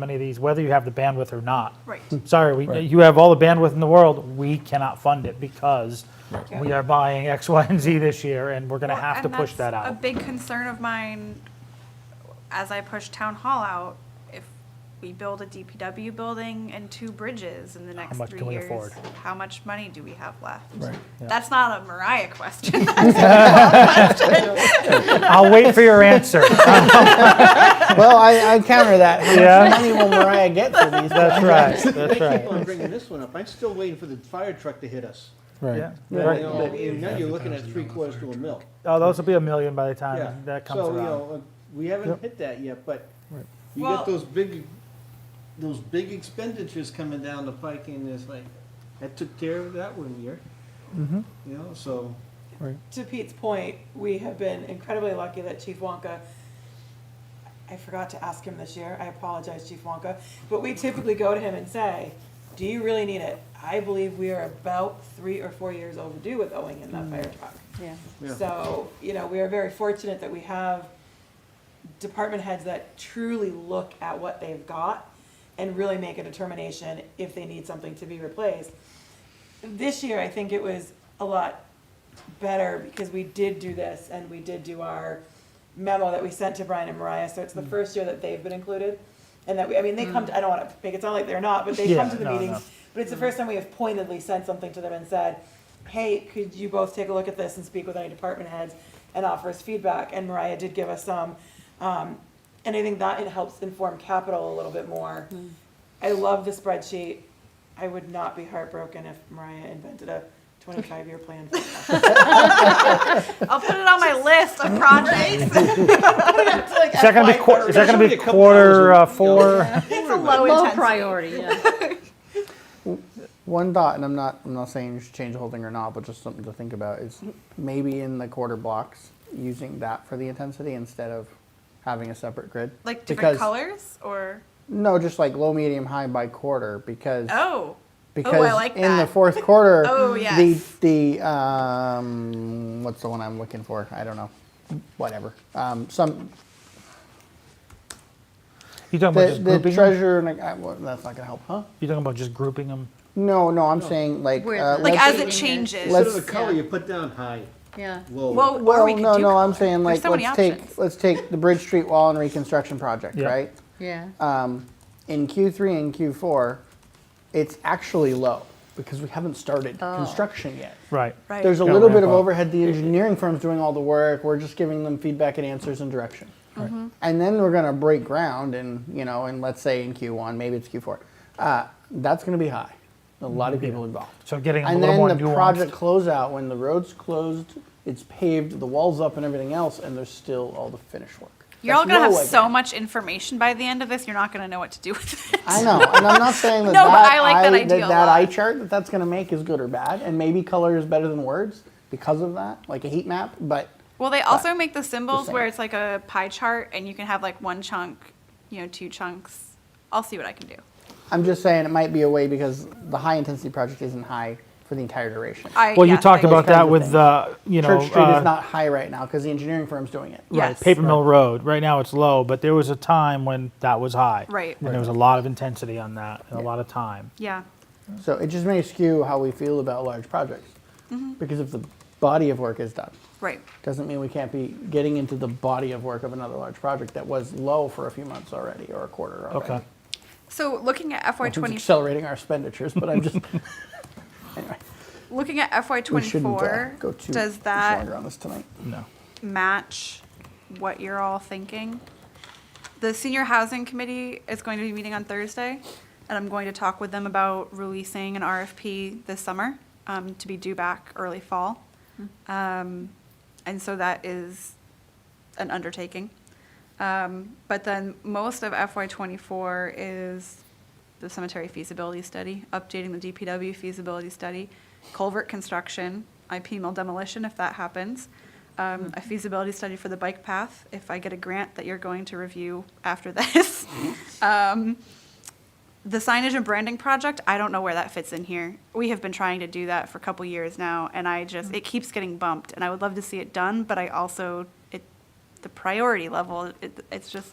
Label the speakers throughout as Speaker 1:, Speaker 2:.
Speaker 1: many of these, whether you have the bandwidth or not.
Speaker 2: Right.
Speaker 1: Sorry, we,
Speaker 3: Right.
Speaker 1: you have all the bandwidth in the world, we cannot fund it because we are buying X, Y, and Z this year, and we're gonna
Speaker 2: Well,
Speaker 1: have to
Speaker 2: and
Speaker 1: push that
Speaker 2: that's A
Speaker 1: out.
Speaker 2: big concern of mine, as I push town hall out, if we build a DPW building and two bridges in the next
Speaker 1: much
Speaker 2: three
Speaker 1: can we
Speaker 2: years,
Speaker 1: afford?
Speaker 2: how much money do we have left?
Speaker 3: Right.
Speaker 1: Yeah.
Speaker 2: That's not a Mariah question.
Speaker 1: I'll wait for your answer.
Speaker 3: Well, I, I counter that. How
Speaker 1: Yeah.
Speaker 3: much money will Mariah get for these?
Speaker 1: That's right, that's
Speaker 4: Thank you
Speaker 1: right.
Speaker 4: for bringing this one up. I'm still waiting for the fire truck to hit us.
Speaker 1: Yeah.
Speaker 3: Right.
Speaker 4: You
Speaker 1: Right.
Speaker 4: know, and Now you're looking at three quarters to a mil.
Speaker 1: Oh, those will be a million by the
Speaker 4: Yeah.
Speaker 1: time Uh, that comes
Speaker 4: So, you
Speaker 1: around.
Speaker 4: know, we haven't hit that yet, but you
Speaker 2: Well-
Speaker 4: get those big, those big expenditures coming down the pike and it's like, that took care of that one year.
Speaker 1: Mm-hmm.
Speaker 4: You know, so,
Speaker 5: to Pete's point, we have been incredibly lucky that Chief Wonka, I forgot to ask him this year, I apologize, Chief Wonka, but we typically go to him and say, do you really need it? I believe we are about three or four years overdue with owing in that fire truck.
Speaker 6: Yeah.
Speaker 4: yeah.
Speaker 5: So, you know, we are very fortunate that we have department heads that truly look at what they've got and really make a determination if they need something to be replaced. This year, I think it was a lot better because we did do this and we did do our memo that we sent to Brian and Mariah, so it's the
Speaker 1: Mm.
Speaker 5: first year that they've been included. And that, we, I mean, they come, to- I don't wanna make it sound like they're not, but they
Speaker 1: Yeah,
Speaker 5: come to the
Speaker 1: no, no. Mm.
Speaker 5: meetings. But it's the first time we have pointedly sent something to them and said, hey, could you both take a look at this and speak with any department heads and offer us feedback? And Mariah did give us some. Um, and I think that it helps inform capital a little bit more.
Speaker 1: Mm.
Speaker 5: I love the spreadsheet. I would not be heartbroken if Mariah invented a twenty-five year plan. for us.
Speaker 2: I'll put it on my list of projects.
Speaker 1: Is that gonna be, quar- is that gonna
Speaker 4: There's only
Speaker 1: be
Speaker 4: a couple hours
Speaker 1: quarter
Speaker 4: of-
Speaker 1: uh, four?
Speaker 2: It's a low
Speaker 6: Low
Speaker 2: intensity.
Speaker 6: priority, yeah.
Speaker 3: One thought, and I'm not, I'm not saying you should change the whole thing or not, but just something to think about is maybe in the quarter blocks, using that for the intensity instead of having a separate grid.
Speaker 2: Like
Speaker 3: Because-
Speaker 2: different colors or,
Speaker 3: No, just like low, medium, high by quarter because.
Speaker 2: oh,
Speaker 3: Because
Speaker 2: like
Speaker 3: in the
Speaker 2: that.
Speaker 3: fourth quarter,
Speaker 2: Oh, yes.
Speaker 3: the the um, what's the one I'm looking for? I don't know. Whatever. Um, some
Speaker 1: You talking about
Speaker 3: the,
Speaker 1: just
Speaker 3: the
Speaker 1: grouping them?
Speaker 3: treasurer. and I, well, that's not gonna help, huh?
Speaker 1: You talking about just grouping them?
Speaker 3: No, no. I'm saying like
Speaker 6: Where
Speaker 3: uh,
Speaker 6: the-
Speaker 2: Oh. like
Speaker 3: let's-
Speaker 2: as it
Speaker 6: Let's-
Speaker 2: changes.
Speaker 4: Instead of
Speaker 3: Let's-
Speaker 4: the color,
Speaker 6: Yeah.
Speaker 4: you put down high,
Speaker 6: Yeah.
Speaker 4: low.
Speaker 2: Well, or
Speaker 3: Well,
Speaker 2: we could
Speaker 3: no,
Speaker 2: do
Speaker 3: no, I'm
Speaker 2: color.
Speaker 3: saying like
Speaker 2: There's so many
Speaker 3: let's take
Speaker 2: options.
Speaker 3: let's take the Bridge Street Wall and Reconstruction Project,
Speaker 1: Yeah.
Speaker 3: right?
Speaker 6: Yeah.
Speaker 3: Um, in Q3 and Q4, it's actually low because we haven't started construction yet.
Speaker 1: Right.
Speaker 2: Oh. Right.
Speaker 3: There's a
Speaker 1: Gotta
Speaker 3: little bit of
Speaker 1: ramp up.
Speaker 3: overhead. The engineering firm's doing all the work. We're just giving them feedback and answers and direction.
Speaker 2: Mm-hmm.
Speaker 3: And then we're gonna break ground and you know, and let's say in Q1, maybe it's Q4. Uh, that's gonna be high. A lot of people involved.
Speaker 1: So getting a
Speaker 3: And
Speaker 1: little
Speaker 3: then
Speaker 1: more
Speaker 3: the project
Speaker 1: nuanced.
Speaker 3: closeout, when the road's closed, it's paved, the wall's up and everything else, and there's still all the finish work.
Speaker 2: You're all
Speaker 3: That's
Speaker 2: gonna have
Speaker 3: low
Speaker 2: so
Speaker 3: again.
Speaker 2: much information by the end of this, you're not gonna know what to do with it.
Speaker 3: I know, and I'm not saying that
Speaker 2: No, but
Speaker 3: that,
Speaker 2: I like that idea a
Speaker 3: that, that
Speaker 2: lot.
Speaker 3: eye chart that that's going to make is good or bad, and maybe color is better than words because of that, like a heat map. But
Speaker 2: Well, they also make the symbols
Speaker 3: saying.
Speaker 2: where it's like a pie chart and you can have like one chunk, you know, two chunks. I'll see what I can do.
Speaker 3: I'm just saying it might be a way because the high intensity project isn't high for the entire duration.
Speaker 2: I,
Speaker 1: Well, you
Speaker 2: yes,
Speaker 1: talked
Speaker 2: I-
Speaker 1: about
Speaker 3: kinds
Speaker 1: that
Speaker 3: of
Speaker 1: with
Speaker 3: things.
Speaker 1: the, you know.
Speaker 3: Church Street
Speaker 1: uh,
Speaker 3: is not high right now because the engineering firm's doing it.
Speaker 1: Right,
Speaker 2: Yes.
Speaker 1: Paper Mill Road, right now it's low, but there was a time when that was high.
Speaker 2: Right.
Speaker 1: And there was a lot of intensity on that, and a lot of time.
Speaker 2: Yeah.
Speaker 3: So it just may skew how we feel about large projects
Speaker 2: Mm-hmm.
Speaker 3: because if the body of work is done.
Speaker 2: Right.
Speaker 3: doesn't mean we can't be getting into the body of work of another large project that was low for a few months already or a quarter already.
Speaker 1: Okay.
Speaker 2: So looking at FY
Speaker 3: It's
Speaker 2: twenty,
Speaker 3: accelerating our expenditures, but I'm just
Speaker 2: looking at FY
Speaker 3: we shouldn't uh,
Speaker 2: twenty-four,
Speaker 3: go too
Speaker 2: does
Speaker 3: much longer
Speaker 2: that
Speaker 3: on this tonight.
Speaker 1: No.
Speaker 2: match what you're all thinking? The senior housing committee is going to be meeting on Thursday, and I'm going to talk with them about releasing an RFP this summer, um, to be due back early fall. Um, and so that is an undertaking. Um, but then most of FY twenty-four is the cemetery feasibility study, updating the DPW feasibility study, culvert construction, IP mill demolition if that happens, um, a feasibility study for the bike path, if I get a grant that you're going to review after this. Um, the signage and branding project, I don't know where that fits in here. We have been trying to do that for a couple years now, and I just, it keeps getting bumped, and I would love to see it done, but I also, it, the priority level, it, it's just,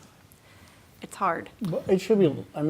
Speaker 2: it's hard.
Speaker 3: But it should be. I mean,